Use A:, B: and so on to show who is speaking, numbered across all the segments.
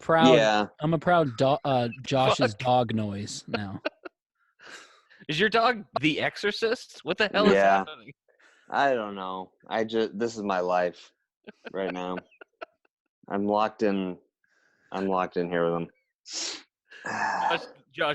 A: proud.
B: yeah.
A: I'm a proud do- uh, Josh's
C: Fuck.
A: dog noise now.
C: Is your dog The Exorcist? What the hell is
B: Yeah.
C: happening?
B: I don't know. I just this is my life right now. I'm locked in. I'm locked in here with them.
C: Josh,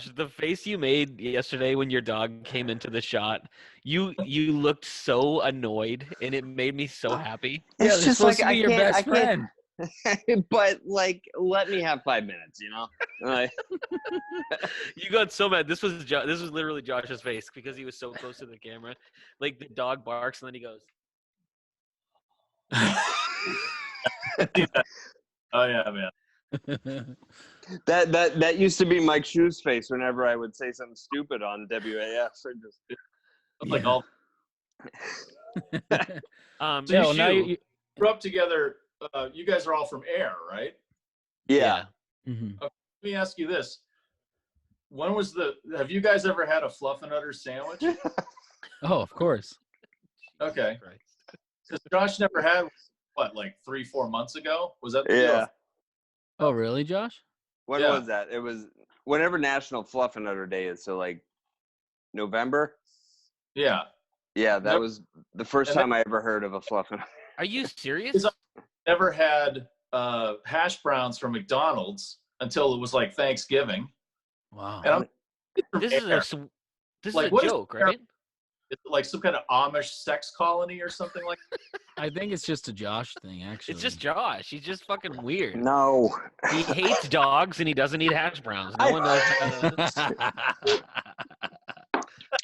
C: Josh, the face you made yesterday when your dog came into the shot, you you looked so annoyed, and it made me
B: Ah.
C: so happy.
A: yeah,
B: It's
A: they're
B: just
A: supposed to be
B: like, I
A: your
B: can't- I
A: best
B: can't-
A: friend.
B: but like, let me have five minutes. You know. Like,
C: You got so mad. This was jo- this was literally Josh's face because he was so close to the camera. Like the dog barks and then he goes.
D: Oh yeah, man.
B: that that that used to be Mike Shoe's face whenever I would say something stupid on WAF. Or just
D: It's Like
A: Yeah.
D: all
C: Um,
A: no, now
C: Shoe.
A: you. you
D: grew up together. Uh, you guys are all from Air, right?
B: yeah.
A: mhm.
D: Let me ask you this: When was the? Have you guys ever had a fluff and udder sandwich?
A: Oh, of course.
D: Okay.
C: Christ.
D: Because Josh never had what, like three, four months ago? Was that? the deal?
B: Yeah.
A: Oh, really, Josh?
B: When
D: Yeah.
B: was that? It was whenever National Fluff and Utter Day is. So like November.
D: Yeah.
B: Yeah, that
D: Nope.
B: was the first
D: And that-
B: time I ever heard of a fluff and
C: Are you serious?
D: Is- Never had uh, hash browns from McDonald's until it was like Thanksgiving.
A: Wow.
D: And I'm from
C: This is
D: Air.
C: a sw- this
D: Like,
C: is a
D: what is
C: joke,
D: Air-
C: right?
D: Is it like some kind of Amish sex colony or something like.
A: I think it's just a Josh thing, actually.
C: It's just Josh. He's just fucking weird.
B: No.
C: He hates dogs and he doesn't eat hash browns. No
B: I-
C: one knows. How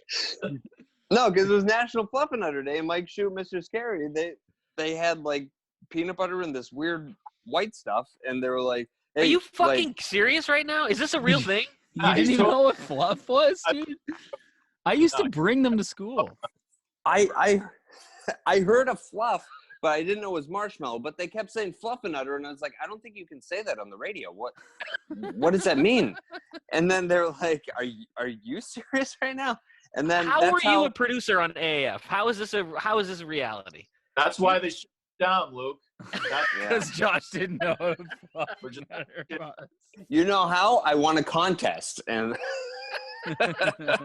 B: No, because it was National Fluff and Utter Day, and Mike Shoot, Mr. Scary, they they had like peanut butter and this weird white stuff, and they were like,
C: Are
B: "Hey,
C: you
B: like-
C: fucking serious right now? Is this a real thing?
A: You
D: I
A: didn't even
D: told-
A: know what fluff was, dude. I used to bring them to school.
B: I I I heard a fluff, but I didn't know it was marshmallow. But they kept saying fluff and utter, and I was like, I don't think you can say that on the radio. What what does that mean? And then they're like, Are you are you serious right now? And then
C: how
B: that's
C: are
B: how,
C: you a producer on AF? How is this a how is this reality?
D: That's why they shut down, Luke. That's
B: Yeah.
A: Josh didn't know what fluff
D: we're just
B: you know how I won a contest, and
D: that's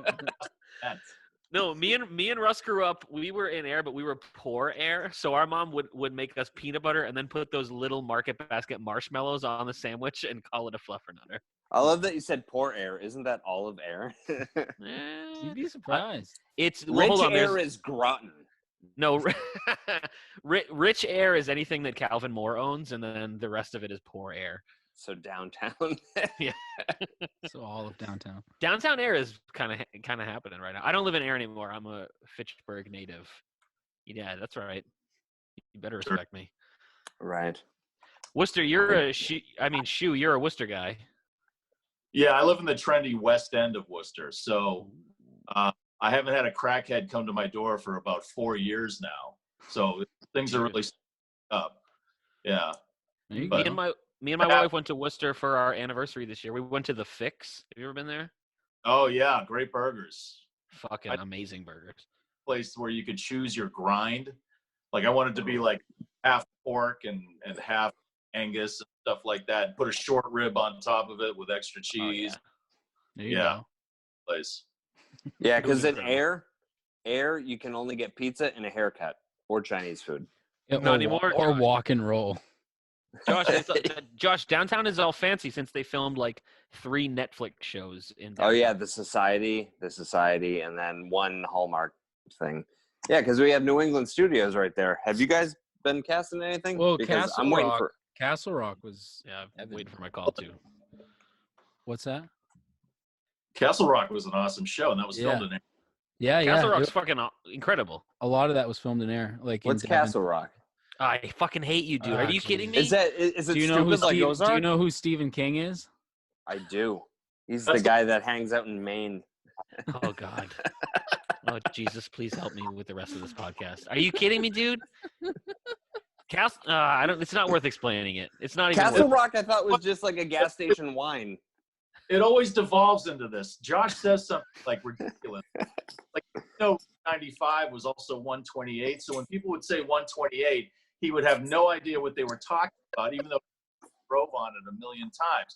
C: No, me and me and Russ grew up. We were in air, but we were poor air. So our mom would would make us peanut butter and then put those little market basket marshmallows on the sandwich and call it a fluffernutter.
B: I love that you said poor air. Isn't that all of air?
C: Eh,
A: You'd be surprised.
C: It's well,
B: Rich
C: hold on. there's-
B: air is Groton.
C: No, rich, rich air is anything that Calvin Moore owns, and then the rest of it is poor air.
B: So downtown.
A: So all of downtown.
C: Downtown air is kind of kind of happening right now. I don't live in air anymore. I'm a Fitchburg native. Yeah, that's right. You better
D: Sure.
C: respect me.
B: right.
C: Worcester, you're a she. I mean, shoe. You're a Worcester guy.
D: Yeah, I live in the trendy west end of Worcester, so uh, I haven't had a crackhead come to my door for about four years now. So things are really up. Yeah,
A: There you
C: Me
A: go.
D: But-
C: and my me and my
D: Yeah.
C: wife went to Worcester for our anniversary this year. We went to the Fix. Have you ever been there?
D: oh yeah, great burgers.
C: Fucking
D: I-
C: amazing burgers.
D: Place where you could choose your grind. Like I wanted to be like half pork and and half Angus and stuff like that. Put a short rib on top of it with extra cheese.
C: Oh, yeah.
A: there you
D: yeah.
A: go.
D: Place.
B: Yeah, because in
C: Groton.
B: air, air you can only get pizza and a haircut or Chinese food.
A: Yeah,
C: Not
A: or, wa-
C: anymore,
A: Or
C: Josh.
A: walk and roll.
C: Josh, it's, uh, Josh, downtown is all fancy since they filmed like three Netflix shows in.
B: Oh yeah,
C: downtown.
B: the society, the society, and then one Hallmark thing. Yeah, because we have New England studios right there. Have you guys been casting anything?
A: Well,
B: because
A: Castle
B: I'm waiting
A: Rock-
B: for.
A: Castle Rock was.
C: yeah. I'm
A: Evan.
C: waiting for my call too.
A: What's that?
D: Castle Rock was an awesome show, and that was filmed
A: Yeah.
D: in Arizona.
A: Yeah, yeah.
C: Castle Rock's
A: it-
C: fucking aw- incredible.
A: a lot of that was filmed in air. Like in
B: What's
A: Devon.
B: Castle Rock?
C: I fucking hate you, dude. Are
A: Ah,
C: you kidding me?
B: Is that is, is it
A: Do you know
B: stupid
A: who
B: like
A: Steve,
B: Ozark?
A: Do you know who Stephen King is?
B: I do. He's
D: That's
B: the
D: the-
B: guy that hangs out in Maine.
C: oh God. Oh Jesus, please help me with the rest of this podcast. Are you kidding me, dude? Castle, uh, I don't. It's not worth explaining it. It's not even.
B: Castle
C: worth,
B: Rock, I thought was just like a gas station wine.
D: it always devolves into this. Josh says something like ridiculous. like, you know, 95 was also 128. So when people would say 128, he would have no idea what they were talking about, even though drove on it a million times.